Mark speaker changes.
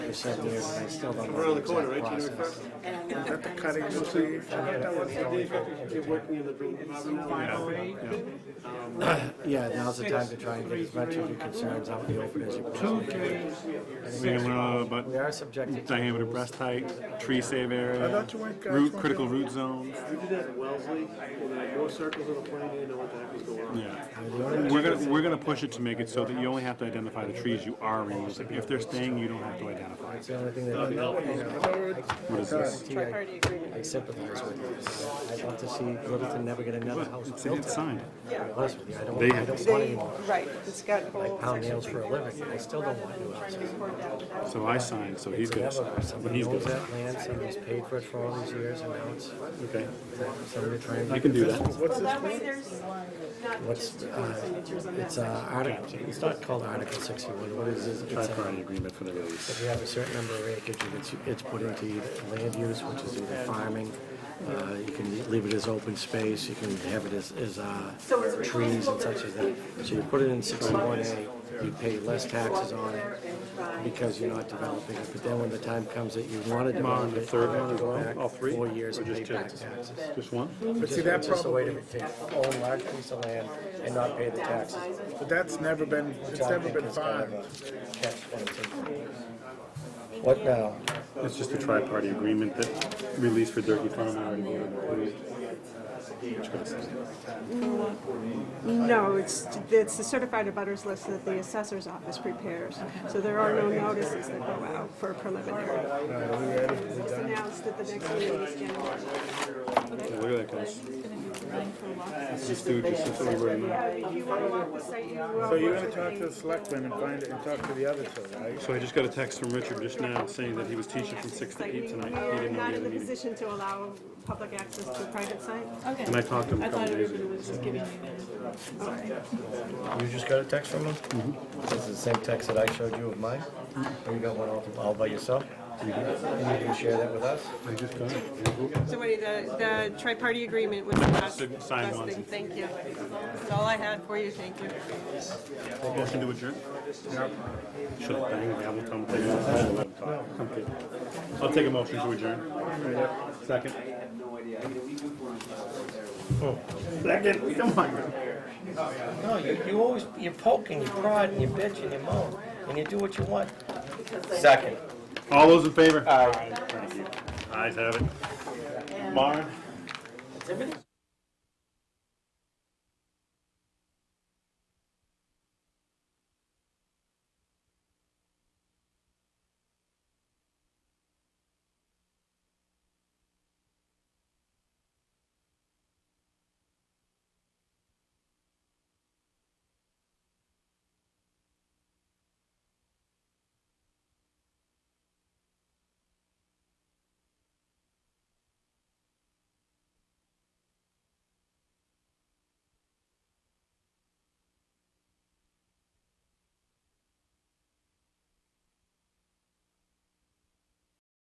Speaker 1: for seven years, and I still don't know.
Speaker 2: Around the
Speaker 1: exact
Speaker 2: corner, right, January
Speaker 1: process.
Speaker 2: first?
Speaker 3: At the
Speaker 4: cutting
Speaker 3: room.
Speaker 2: You're working in the room.
Speaker 1: Yeah, now's the time to try and get as much of your concerns out in the open as you possibly
Speaker 5: We can learn all
Speaker 1: can. We
Speaker 5: about
Speaker 1: are subjected to.
Speaker 5: diameter breast height, tree save area,
Speaker 4: thought you went, guys,
Speaker 5: root,
Speaker 4: weren't
Speaker 5: critical
Speaker 4: you?
Speaker 5: root zones.
Speaker 2: We did that at Wellesley, and there were more circles on the plane, you didn't know what the heck was going on.
Speaker 5: Yeah. We're gonna, we're gonna push it to make it so that you only have to identify the trees you are removing. If they're staying, you don't have to identify.
Speaker 1: It's the only thing that
Speaker 5: What is this?
Speaker 1: I guarantee
Speaker 3: Party agreement.
Speaker 1: I- I sympathize with you. I'd love to see Littleton never get another house
Speaker 5: It's,
Speaker 1: built.
Speaker 5: it's signed.
Speaker 1: To be honest with you, I don't,
Speaker 5: They-
Speaker 1: I don't want
Speaker 3: They,
Speaker 1: anymore.
Speaker 3: right, it's got whole
Speaker 1: Pound
Speaker 3: section.
Speaker 1: nails for a living. I still don't want new houses.
Speaker 5: So I signed, so he's gonna sign.
Speaker 1: Never,
Speaker 5: But
Speaker 1: somebody
Speaker 5: he's
Speaker 1: owns
Speaker 5: gonna sign.
Speaker 1: that land, somebody's paid for it for all these years, and now it's,
Speaker 5: Okay.
Speaker 1: somebody trying to.
Speaker 5: I can do that.
Speaker 4: What's this?
Speaker 3: way there's not
Speaker 1: What's, uh, it's, uh, article, it's not called Article sixty-one, what is it? It's, uh,
Speaker 5: Tri-party agreement for the release.
Speaker 1: If you have a certain number of acres, it's, it's put into either land use, which is either farming, uh, you can leave it as open space, you can have it as, as, uh, trees and such as that. So you put it in sixty-one A, you pay less taxes on it because you're not developing it, but then when the time comes that you wanna develop it, you
Speaker 5: third one
Speaker 1: have to
Speaker 5: as
Speaker 1: go
Speaker 5: well?
Speaker 1: back
Speaker 5: All three?
Speaker 1: four years
Speaker 5: Or
Speaker 1: and pay
Speaker 5: just
Speaker 1: back
Speaker 5: two?
Speaker 1: taxes.
Speaker 5: Just one?
Speaker 4: But see,
Speaker 1: Just-
Speaker 4: that
Speaker 1: it's just a way to
Speaker 4: probably,
Speaker 1: take- Own large piece of land and not pay the taxes.
Speaker 4: but that's never been, it's never been fine.
Speaker 1: What now?
Speaker 5: It's just a tri-party agreement that release for Durkey Farm already voted and approved. Just gotta sign it.
Speaker 3: No, it's, it's the certified abutters list that the assessor's office prepares. So there are no notices that go out for preliminary. It's announced that the next meeting is January.
Speaker 5: Yeah, Look at that, guys. Let's just do just what we were in.
Speaker 3: Uh, If you want to walk the site, you. uh,
Speaker 4: So you're
Speaker 3: work
Speaker 4: gonna
Speaker 3: with
Speaker 4: talk to
Speaker 3: me.
Speaker 4: the selectmen and find it and talk to the other two, right?
Speaker 5: So I just got a text from Richard just now saying that he was teaching from six to
Speaker 3: Like,
Speaker 5: eight
Speaker 3: we-
Speaker 5: tonight. He
Speaker 3: We're
Speaker 5: didn't know
Speaker 3: not
Speaker 5: he had
Speaker 3: in
Speaker 5: a
Speaker 3: the
Speaker 5: meeting.
Speaker 3: position to allow public access to private sites.
Speaker 6: Okay.
Speaker 5: And I talked to him a
Speaker 6: I thought
Speaker 5: couple days
Speaker 6: everybody
Speaker 5: ago,
Speaker 6: was just giving you.
Speaker 1: You just got a text from him? Is it the same text that I showed you of mine? Or you got one all, all by yourself? And you can share that with us?
Speaker 5: I just got it.
Speaker 3: So wait, the, the tri-party agreement was the last,
Speaker 5: Sig- sign
Speaker 3: last
Speaker 5: one.
Speaker 3: thing, thank you. That's all I had for you, thank you.
Speaker 5: Motion to adjourn? Should I bang gavel, Tom, take it? I don't know what I'm talking. Okay. I'll take a motion to adjourn. Second. Oh, Second, come on.
Speaker 7: No, you, you always, you poke and you prod and you bitch and you moan, and you do what you want. Second.
Speaker 5: All those in favor? Aye. Thank you. Ayes have it. Maren?